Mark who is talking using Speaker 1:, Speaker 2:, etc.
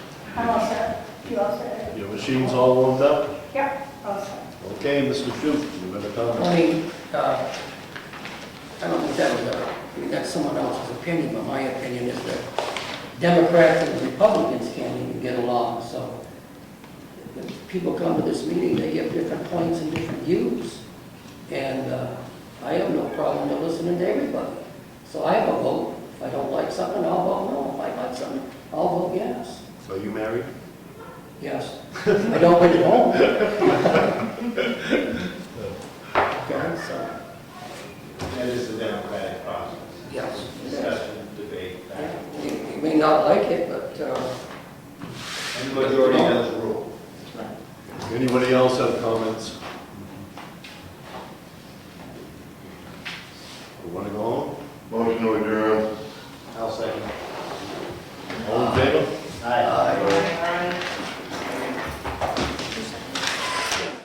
Speaker 1: I'm all set. You all set?
Speaker 2: Your machine's all warmed up?
Speaker 1: Yep, all set.
Speaker 2: Okay, Mr. Shute, you have a comment?
Speaker 3: I mean, uh, I don't think that was, a- I mean, that's someone else's opinion, but my opinion is that Democrats and Republicans can't even get along, so when people come to this meeting, they give different points and different views, and uh, I have no problem with listening to everybody. So I have a vote, if I don't like something, I'll vote no, if I like something, I'll vote yes.
Speaker 2: So you married?
Speaker 3: Yes. I don't win at home. Okay, so,
Speaker 4: That is the democratic process,
Speaker 3: yes.
Speaker 4: discussion, debate,
Speaker 3: Yeah,
Speaker 4: back.
Speaker 3: You you may not like it, but, uh,
Speaker 4: and the majority does rule.
Speaker 2: Anybody else